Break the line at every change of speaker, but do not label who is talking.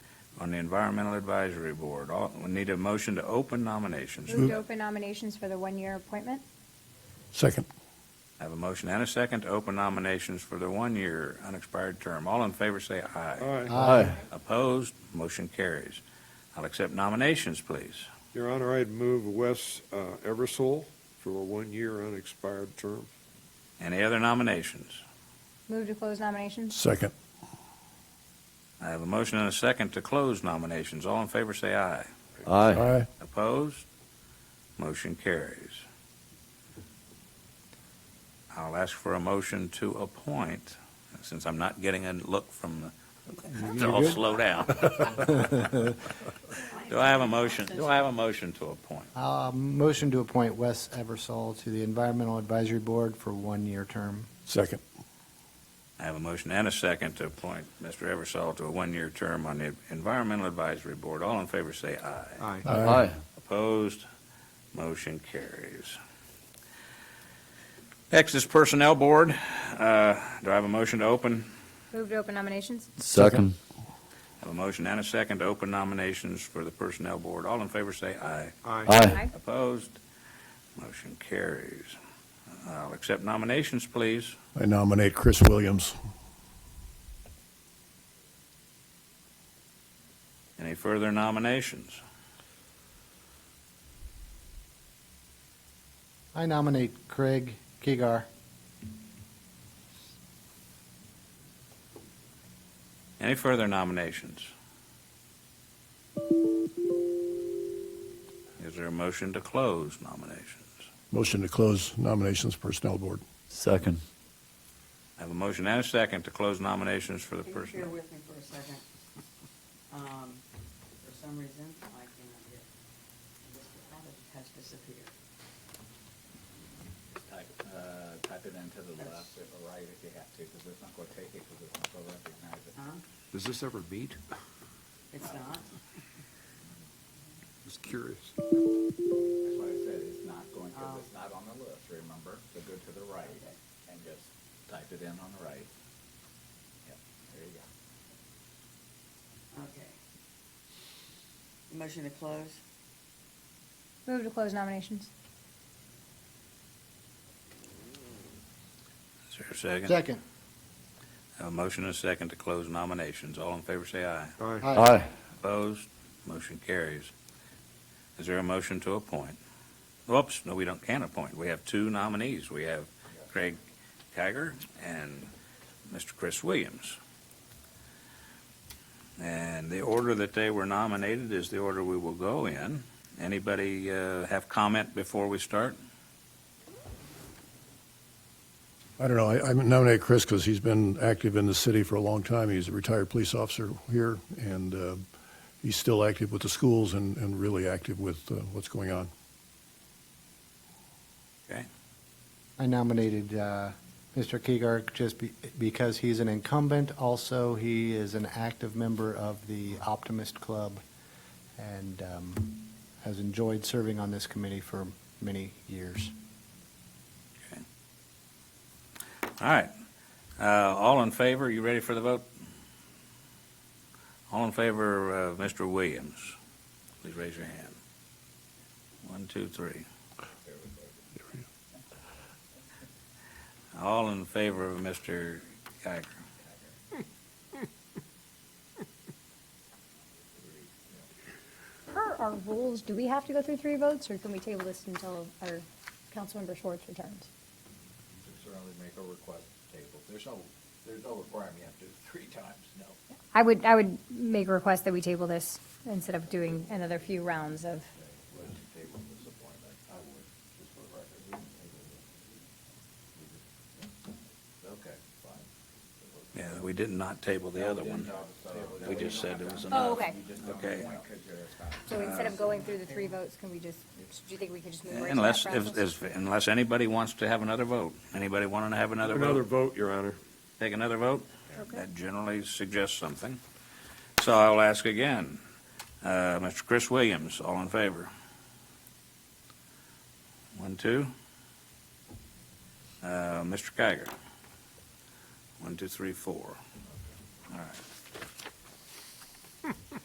on the Environmental Advisory Board. All- We need a motion to open nominations.
Move to open nominations for the one-year appointment.
Second.
I Have a motion and a second to open nominations for the one-year unexpired term. All in favor, say aye.
Aye.
Opposed, motion carries. I'll accept nominations, please.
Your Honor, I'd move Wes uh, Eversole for a one-year unexpired term.
Any other nominations?
Move to close nominations.
Second.
I have a motion and a second to close nominations. All in favor, say aye.
Aye.
Aye.
Opposed? Motion carries. I'll ask for a motion to appoint, since I'm not getting a look from the, they're all slow down. Do I have a motion, do I have a motion to appoint?
Uh, Motion to appoint Wes Eversole to the Environmental Advisory Board for one-year term.
Second.
I have a motion and a second to appoint Mr. Eversole to a one-year term on the Environmental Advisory Board. All in favor, say aye.
Aye.
Aye.
Opposed? Motion carries. Next is Personnel Board. Uh, Do I have a motion to open?
Move to open nominations.
Second.
Have a motion and a second to open nominations for the Personnel Board. All in favor say aye.
Aye.
Opposed? Motion carries. I'll accept nominations, please.
I nominate Chris Williams.
Any further nominations?
I nominate Craig Kigar.
Any further nominations? Is there a motion to close nominations?
Motion to close nominations Personnel Board.
Second.
I have a motion and a second to close nominations for the
Can you bear
Personnel.
with me for a second? Um, For some reason, I cannot hear. Mr. Abbott has disappeared.
Type, uh, type it into the left or right if you have to, because it's not going to take it, because it's not going to recognize it.
Huh?
Does this ever meet?
It's not?
Just curious.
That's why I said it's not going, because
Oh,
it's not on the list, remember? So go to the right and just type it in on the right. Yep, there you go.
Okay. Motion to close?
Move to close nominations.
Is there a second?
Second.
I have a motion and a second to close nominations. All in favor say aye.
Aye.
Aye.
Opposed? Motion carries. Is there a motion to appoint? Whoops, no, we don't, can appoint. We have two nominees. We have Craig Kiger and Mr. Chris Williams. And the order that they were nominated is the order we will go in. Anybody uh, have comment before we start?
I don't know, I I nominate Chris because he's been active in the city for a long time. He's a retired police officer here, and uh, he's still active with the schools and and really active with uh, what's going on.
I nominated uh, Mr. Kigar just be- because he's an incumbent. Also, he is an active member of the Optimist Club and um, has enjoyed serving on this committee for many years.
All right. Uh, All in favor, you ready for the vote? All in favor of Mr. Williams, please raise your hand. One, two, three. All in favor of Mr. Geiger?
Per our rules, do we have to go through three votes, or can we table this until our Councilmember Schwartz returns?
You can certainly make a request to table. There's no, there's no requirement you have to do it three times, no.
I would, I would make a request that we table this instead of doing another few rounds of,
But to table this appointment, I would, just for the record. we can table this. We just- Okay, fine.
Yeah, we did not table the other one. We just said it was
oh,
enough.
okay.
Okay.
So instead of going through the three votes, can we just, do you think we could just move right to
Unless,
that
if-
process?
if- unless anybody wants to have another vote. Anybody want to have another vote?
Another vote, Your Honor.
Take another vote?
Okay.
That generally suggests something. So I'll ask again. Uh, Mr. Chris Williams, all in favor? One, two. Uh, Mr. Geiger? One, two, three, four. All right.